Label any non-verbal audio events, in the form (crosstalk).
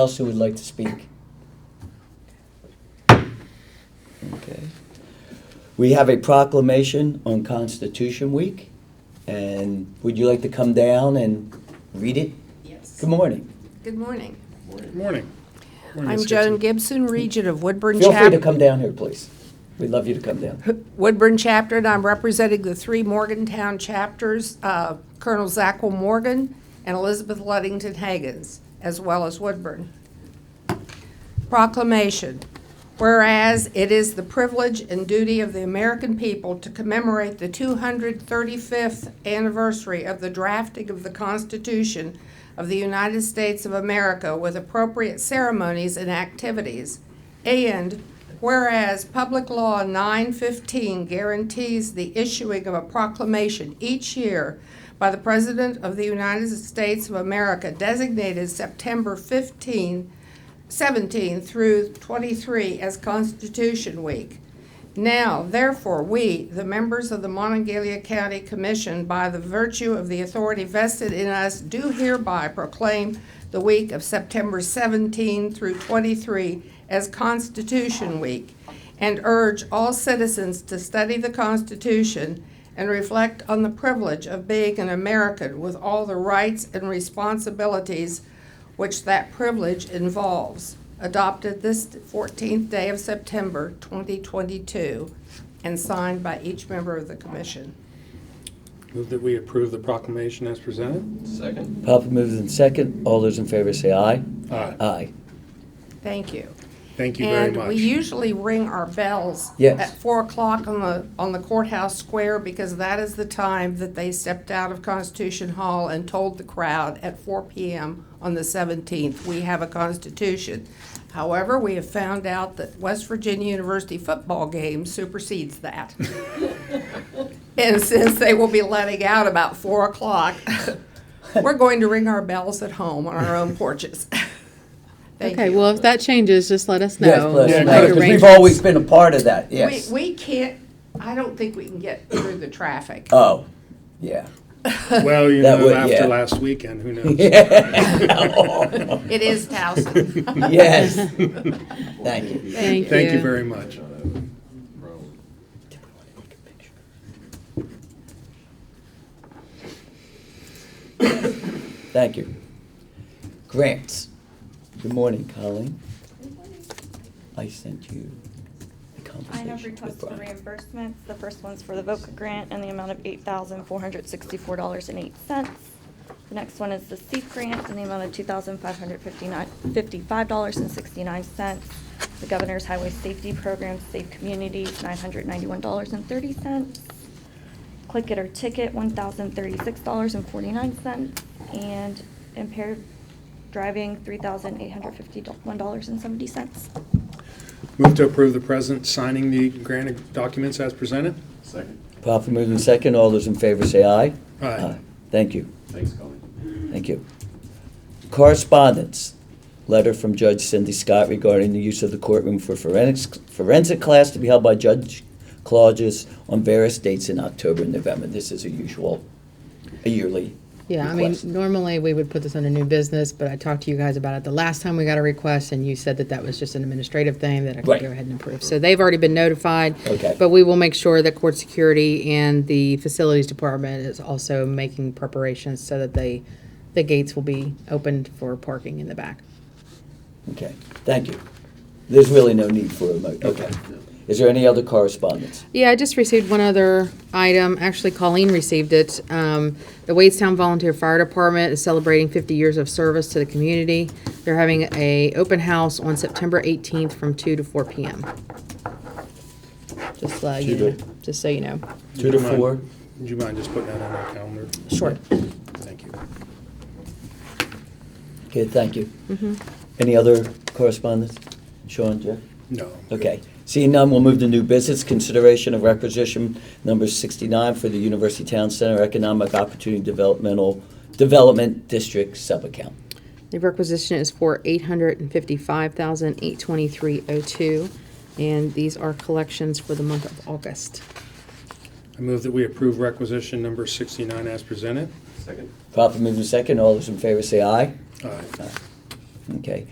else who would like to speak? Okay. We have a proclamation on Constitution Week, and would you like to come down and read it? Yes. Good morning. Good morning. Morning. Morning, I'm Ms. Joan Gibson. Gibson, Regent of Woodburn Feel free to Chapter. come down here, please. We'd love you to come down. Woodburn Chapter, and I'm representing the three Morgantown chapters, uh, Colonel Zachel Morgan and Elizabeth Luddington Hagens, as well as Woodburn. Proclamation. Whereas it is the privilege and duty of the American people to commemorate the 235th anniversary of the drafting of the Constitution of the United States of America with appropriate ceremonies and activities. And whereas Public Law 915 guarantees the issuing of a proclamation each year by the President of the United States of America designated September 15, 17 through 23 as Constitution Week. Now, therefore, we, the members of the Monongalia County Commission, by the virtue of the authority vested in us, do hereby proclaim the week of September 17 through 23 as Constitution Week and urge all citizens to study the Constitution and reflect on the privilege of being an American with all the rights and responsibilities which that privilege involves, adopted this 14th day of September 2022 and signed by each member of the commission. Move that we approve the proclamation as presented. Second. Proper moves in second. All those in favor say aye. Aye. Aye. Thank you. Ah, Thank you very And we much. usually ring our bells Yes. at 4 o'clock on the, on the courthouse square because that is the time that they stepped out of Constitution Hall and told the crowd at 4 p.m. on the 17th, we have a constitution. However, we have found out that West Virginia University football game supersedes (laughs) that. And since they will be letting out about 4 o'clock, we're going to ring our bells at home on our own porches. (laughs) Thank Okay, you. well, if that changes, just let us know. Yes, please. Yeah, no, We'll make because we've arrangements. always been a part of that, We, yes. we can't, I don't think we can get through the traffic. Oh, (laughs) yeah. (laughs) Well, you That know, would- yeah. after last weekend, who (laughs) knows? It is Towson. Yes. Thank you. Thank Thank you you. very much. Thank you. Grants. Good morning, Colleen. I sent you the I conversation. have with requested Brian. reimbursements. The first one's for the VOCA grant in the amount of eight thousand four hundred sixty-four dollars and eight cents. The next one is the SEEP grant in the amount of two thousand five hundred fifty-nine, fifty-five dollars and sixty-nine cents. The Governor's Highway Safety Program, Safe Communities, nine hundred ninety-one dollars and thirty cents. Click It or Ticket, one thousand thirty-six dollars and forty-nine cents. And impaired driving, three thousand eight hundred fifty-one dollars and seventy cents. Move to approve the president signing the grant documents as presented. Second. Proper moving second. All those in favor say aye. Aye. Thank you. Thanks, Colleen. Thank you. Correspondence. Letter from Judge Cindy Scott regarding the use of the courtroom for forensics, forensic class to be held by Judge Claudius on various dates in October and November. This is a usual, a yearly Yeah, I mean, request. normally we would put this under new business, but I talked to you guys about it the last time we got a request, and you said that that was just an administrative thing that I could Right. go ahead and approve. So they've already been notified. Okay. But we will make sure that court security and the facilities department is also making preparations so that they, the gates will be opened for parking in the back. Okay, thank you. There's really no need for a mo, okay. Is there any other correspondence? Yeah, I just received one other item. Actually, Colleen received it. Um, the Wadestown Volunteer Fire Department is celebrating 50 years of service to the community. They're having a open house on September 18th from 2 to 4 p.m. Just, uh, you Two know, to- just so you know. Two to four? Would you mind just putting that on our calendar? Sure. Thank you. Okay, thank you. Mm-hmm. Any other correspondence? Sean, Jeff? No. I'm good. Okay. Seeing none, we'll move to new business, consideration of requisition number 69 for the University Town Center Economic Opportunity Developmental, Development District subaccount. The requisition is for 855823 dollars 02 and these are collections for the month of August. I move that we approve requisition number 69 as presented. Second. Uh, Proper movement second, all those in favor say aye. Aye. Okay.